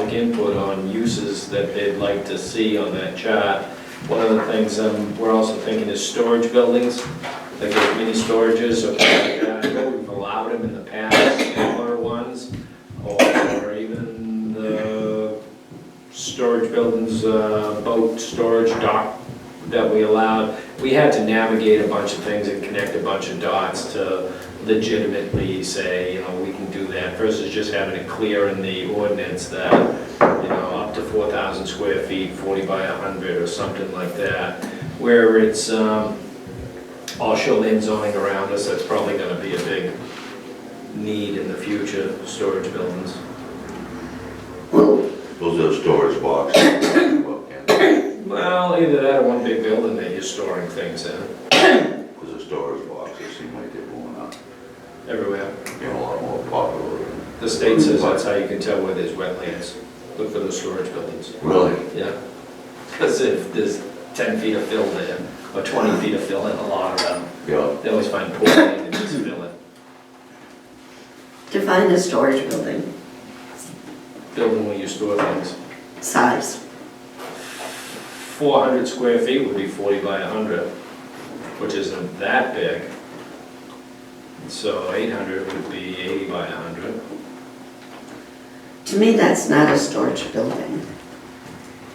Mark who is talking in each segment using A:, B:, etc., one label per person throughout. A: public input on uses that they'd like to see on that chart. One of the things um, we're also thinking is storage buildings, like the mini storages or things like that. We've allowed them in the past, smaller ones, or even the storage buildings, uh, boat storage dock that we allowed. We had to navigate a bunch of things and connect a bunch of dots to legitimately say, you know, we can do that versus just having it clear in the ordinance that, you know, up to 4,000 square feet, 40 by 100 or something like that, where it's um, all shoreline zoning around us, that's probably going to be a big need in the future, storage buildings.
B: Those are storage boxes. Well, and
A: Well, either that or one big building that you're storing things in,
B: Those are storage boxes, seem like they're going up,
A: everywhere.
B: they're a lot more popular.
A: The state says that's how you can tell where there's wetlands. Look for the storage buildings.
B: Really?
A: Yeah. Because if there's 10 feet of fill there, or 20 feet of fill in a lot of them,
B: Yeah,
A: they always find poor land and just fill it.
C: Define a storage building,
A: Building where you store things.
C: size.
A: 400 square feet would be 40 by 100, which isn't that big. So 800 would be 80 by 100.
C: To me, that's not a storage building.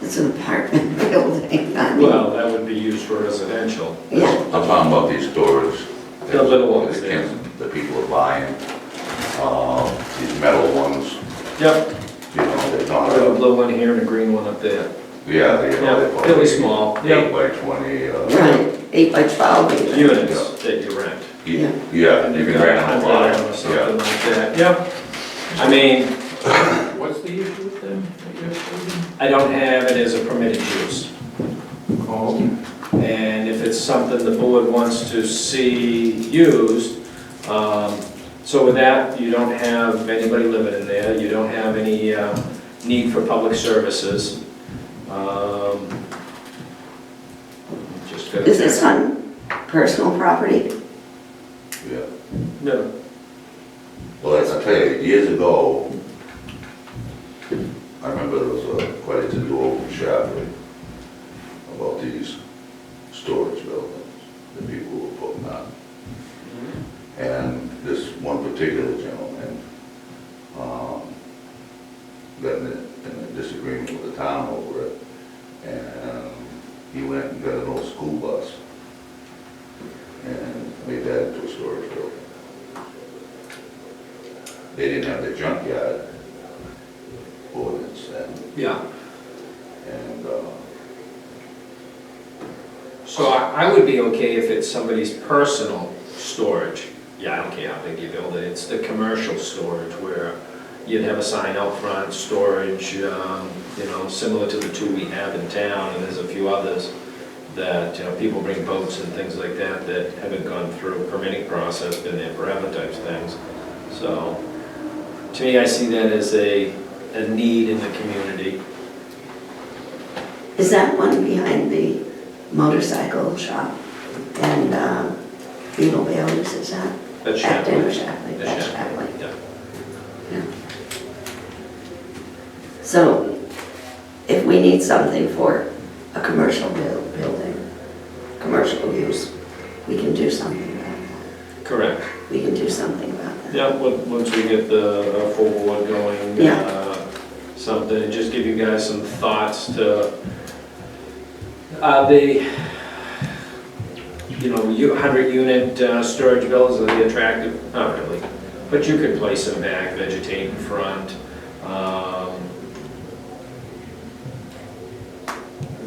C: It's an apartment building, I mean,
A: Well, that would be used for residential.
C: yeah,
B: I'm talking about these storage.
A: The little ones,
B: that
A: yeah.
B: kids- That people are buying, uh, these metal ones,
A: Yep,
B: you know, they're
A: I
B: not,
A: have a
B: uh,
A: blue one here and a green one up there.
B: yeah, they.
A: Yeah, really small,
B: Eight
A: yeah.
B: by twenty, uh,
C: right, eight by twelve even.
A: Units that you rent.
B: you- yeah, you can rent a lot,
A: Or Something
B: yeah.
A: like that, yeah. I mean,
D: What's the issue with them? that you're stating?
A: I don't have it as a permitted use.
D: Oh,
A: And if it's something the board wants to see used, um, so with that, you don't have anybody living in there, you don't have any uh, need for public services. Um, Just gotta...
C: Is this on personal property?
B: Yeah.
A: No,
B: Well, that's, I tell you, years ago, I remember there was a, quite a to-do over in Shapley about these storage buildings that people were putting up. And this one particular gentleman, um, got in a, in a disagreement with the town over it. And he went and got an old school bus and made that into a storage building. They didn't have the junkyard ordinance then,
A: yeah.
B: and, uh,
A: So I I would be okay if it's somebody's personal storage. Yeah, I don't care how big you build it, it's the commercial storage where you'd have a sign out front, storage, um, you know, similar to the two we have in town, and there's a few others that, you know, people bring boats and things like that that haven't gone through permitting process, been there forever types things. So, to me, I see that as a, a need in the community.
C: Is that one behind the motorcycle shop? And, uh, Beetle Bailey's, is that?
A: That's
C: Acton or
A: Shapley.
C: Shapley,
A: That's
C: that's Shapley.
A: Yeah.
C: So if we need something for a commercial buil- building, commercial use, we can do something about that.
A: Correct.
C: We can do something about that.
A: Yeah, on- once we get the uh, full board going,
C: Yeah.
A: uh, something, and just give you guys some thoughts to, are they, you know, you, hundred unit uh, storage buildings, are they attractive? Not really, but you could place them back, vegetate in front. um,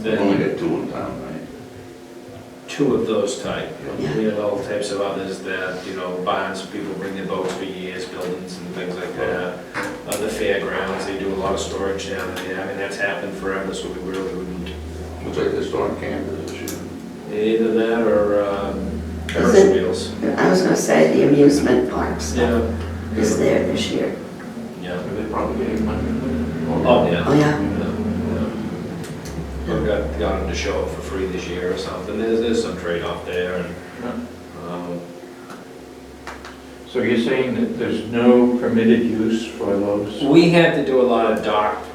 B: we only
A: Then,
B: got two in town, right?
A: two of those type.
C: Yeah.
A: We have all types of others that, you know, barns, people bring their boats for years, buildings and things like that. Uh, the fairgrounds, they do a lot of storage down there, I mean, that's happened forever, so we really wouldn't.
B: Looks like they're storing campers and shit.
A: Either that or, um, Ferris
C: Is it-
A: wheels.
C: I was gonna say the amusement parks
A: Yeah,
C: is there this year.
A: yeah.
D: They probably getting money.
A: Oh, yeah.
C: Oh, yeah.
A: Yeah. We got, got them to show up for free this year or something, there's, there's some trade-off there and, um,
D: So you're saying that there's no permitted use for those?
A: We had to do a lot of uh, dock